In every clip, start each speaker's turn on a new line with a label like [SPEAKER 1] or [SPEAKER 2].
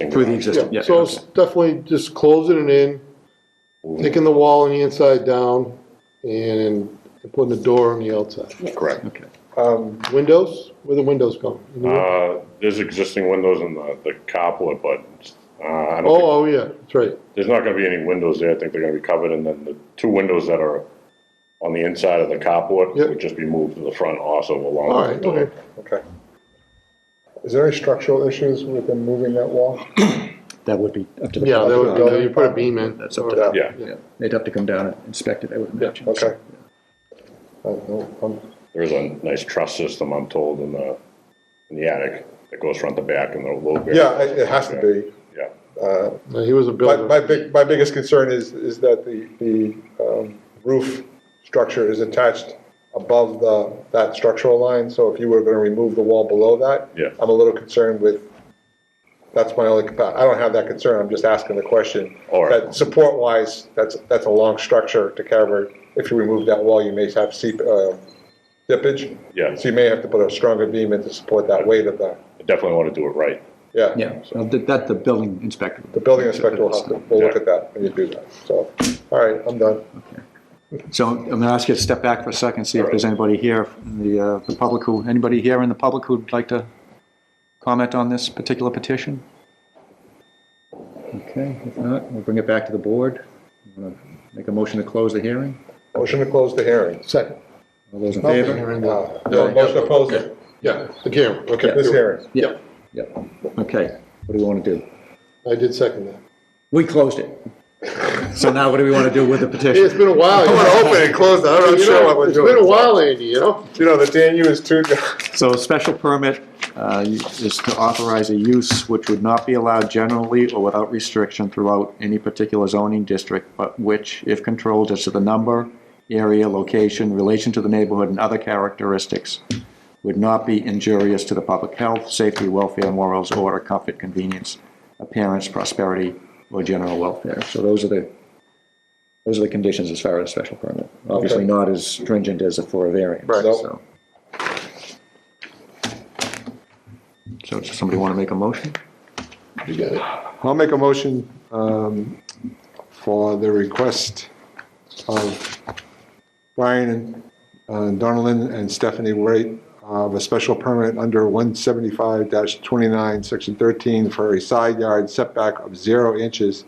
[SPEAKER 1] existing.
[SPEAKER 2] Through the
[SPEAKER 1] garage.
[SPEAKER 2] existing, yeah.
[SPEAKER 3] Yeah, so it's
[SPEAKER 2] okay.
[SPEAKER 3] definitely just closing it in, taking the wall on the inside down, and putting the door on the outside.
[SPEAKER 1] Correct.
[SPEAKER 2] Okay.
[SPEAKER 4] Um,
[SPEAKER 3] Windows, where the windows going? In the win-
[SPEAKER 1] Uh, there's existing windows in the, the carport, but, uh, I don't think,
[SPEAKER 3] Oh, oh, yeah, that's right.
[SPEAKER 1] there's not gonna be any windows there. I think they're gonna be covered, and then the two windows that are on the inside of the carport
[SPEAKER 3] Yep.
[SPEAKER 1] would just be moved to the front also along.
[SPEAKER 3] All
[SPEAKER 1] with the
[SPEAKER 3] right,
[SPEAKER 1] building.
[SPEAKER 3] okay.
[SPEAKER 4] Okay. Is there any structural issues with them moving that wall?
[SPEAKER 2] That would be up to the.
[SPEAKER 3] Yeah, that would,
[SPEAKER 4] Yeah.
[SPEAKER 3] you put a beam in.
[SPEAKER 2] That's up to them.
[SPEAKER 1] Yeah,
[SPEAKER 2] Yeah, they'd have to come down and inspect it, I would imagine.
[SPEAKER 4] Okay. I don't know, um,
[SPEAKER 1] there's a nice truss system, I'm told, in the, in the attic that goes front to back and the low bit.
[SPEAKER 4] Yeah, it it has to be. Uh,
[SPEAKER 1] Yeah,
[SPEAKER 3] No, He was a
[SPEAKER 4] My,
[SPEAKER 3] builder.
[SPEAKER 4] my big, my biggest concern is, is that the, the um, roof structure is attached above the, that structural line, so if you were gonna remove the wall below that.
[SPEAKER 1] Yeah.
[SPEAKER 4] I'm a little concerned with, that's my only, compa- I don't have that concern, I'm just asking the question.
[SPEAKER 1] All right.
[SPEAKER 4] That support wise, that's, that's a long structure to cover, if you remove that wall, you may have seep, uh, dippage.
[SPEAKER 1] Yeah.
[SPEAKER 4] So you may have to put a stronger beam in to support that weight of the,
[SPEAKER 1] I definitely want to do it right.
[SPEAKER 4] yeah.
[SPEAKER 2] Yeah, so that, that the building inspector.
[SPEAKER 4] The building inspector will have to, will look at that when you do that, so, all right, I'm done.
[SPEAKER 2] So I'm going to ask you to step back for a second, see if there's anybody here, in the, uh, the public who, anybody here in the public who'd like to comment on this particular petition? Okay, if not, we'll bring it back to the board. Wanna Make a motion to close the hearing.
[SPEAKER 4] Motion to close the hearing.
[SPEAKER 3] Second.
[SPEAKER 2] All those in
[SPEAKER 3] Not the
[SPEAKER 2] favor?
[SPEAKER 3] hearing,
[SPEAKER 4] Uh,
[SPEAKER 3] no.
[SPEAKER 4] No, motion to close it.
[SPEAKER 3] Yeah, the camera, okay.
[SPEAKER 4] This hearing.
[SPEAKER 2] Yeah. Yeah, okay. What do we want to do?
[SPEAKER 3] I did second that.
[SPEAKER 2] We closed it. So now what do we want to do with the
[SPEAKER 3] Hey, it's
[SPEAKER 2] petition?
[SPEAKER 3] been a while.
[SPEAKER 4] I'm gonna open and close it, I'm not
[SPEAKER 3] You
[SPEAKER 4] sure
[SPEAKER 3] know,
[SPEAKER 4] what we're doing.
[SPEAKER 3] It's been a while, Andy, you know?
[SPEAKER 4] You know, the DNU is too,
[SPEAKER 2] So special permit uh, is to authorize a use which would not be allowed generally or without restriction throughout any particular zoning district, but which, if controlled as to the number, area, location, relation to the neighborhood, and other characteristics, would not be injurious to the public health, safety, welfare, morals, order, comfort, convenience, appearance, prosperity, or general welfare. So those are the, those are the conditions as far as special permit. Obviously
[SPEAKER 4] Okay.
[SPEAKER 2] not as stringent as for a variance,
[SPEAKER 4] Right. Nope.
[SPEAKER 2] so. So does somebody want to make a motion?
[SPEAKER 3] You got it.
[SPEAKER 5] I'll make a motion um, for the request of Brian and uh, Donalyn and Stephanie Wright of a special permit under 175-29, Section 13, for a side yard setback of zero inches,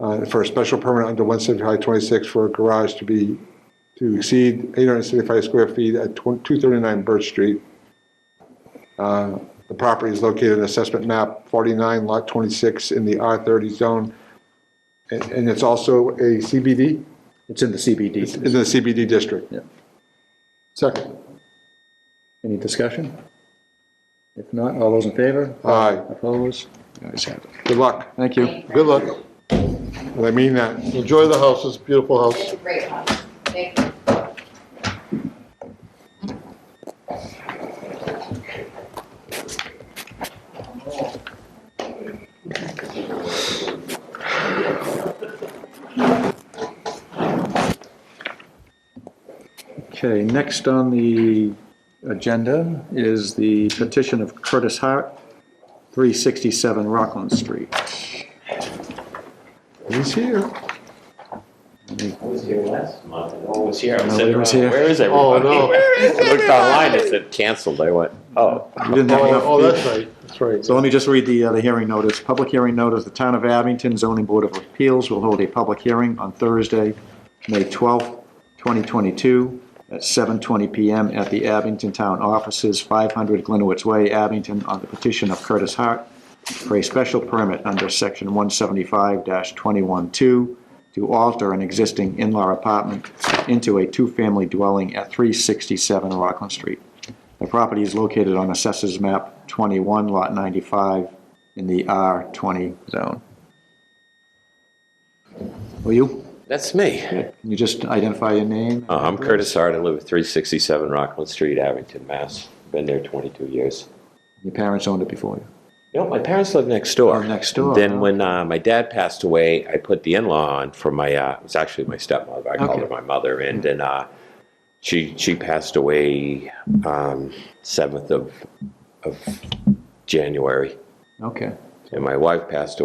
[SPEAKER 5] uh, for a special permit under 175-26 for a garage to be, to exceed 875 square feet at 239 Birch Street. The property is located in assessment map 49, lot 26, in the R30 zone. And and it's also a CBD,
[SPEAKER 2] It's in the
[SPEAKER 5] in
[SPEAKER 2] CBD.
[SPEAKER 5] the CBD district.
[SPEAKER 3] Second.
[SPEAKER 2] Any discussion? If not, all those in favor?
[SPEAKER 5] Aye,
[SPEAKER 2] Opposed? The ayes have it.
[SPEAKER 5] good luck.
[SPEAKER 2] Thank you.
[SPEAKER 3] Good luck.
[SPEAKER 5] I mean that.
[SPEAKER 3] Enjoy the house. It's a beautiful
[SPEAKER 6] It's
[SPEAKER 3] house.
[SPEAKER 6] a great house. Thank you.
[SPEAKER 2] Okay, next on the agenda is the petition of Curtis Hart, 367 Rockland Street.
[SPEAKER 5] He's here.
[SPEAKER 7] was here last month. No one was here. I
[SPEAKER 2] Nobody was here.
[SPEAKER 7] Where is
[SPEAKER 3] Oh,
[SPEAKER 7] everybody?
[SPEAKER 3] no.
[SPEAKER 7] I looked online, it said canceled. I went, oh.
[SPEAKER 2] We didn't have
[SPEAKER 3] Oh,
[SPEAKER 2] enough
[SPEAKER 3] oh, that's right. That's right.
[SPEAKER 2] So let me just read the, uh, the hearing notice. Public hearing notice, the Town of Abington Zoning Board of Appeals will hold a public hearing on Thursday, May 12th, 2022, at 7:20 PM at the Abington Town Offices, 500 Glenowitz Way, Abington, on the petition of Curtis Hart for a special permit under Section 175-212 to alter an existing in-law apartment into a two-family dwelling at 367 Rockland Street. The property is located on Assessors Map 21, Lot 95, in the R20 zone. Will you,
[SPEAKER 7] That's me.
[SPEAKER 2] can you just identify your name?
[SPEAKER 7] Uh, I'm Curtis Hart. I live at 367 Rockland Street, Abington, Mass. Been there 22 years.
[SPEAKER 2] Your parents owned it before you.
[SPEAKER 7] You know, my parents lived next door.
[SPEAKER 2] Oh, next door,
[SPEAKER 7] And then
[SPEAKER 2] huh?
[SPEAKER 7] when uh, my dad passed away, I put the in-law on for my. Uh, it was actually my stepmother. I called
[SPEAKER 2] Okay. Mm.
[SPEAKER 7] her my mother, and then uh, she she passed away um, seventh of of January.
[SPEAKER 2] Okay.
[SPEAKER 7] and my wife passed away.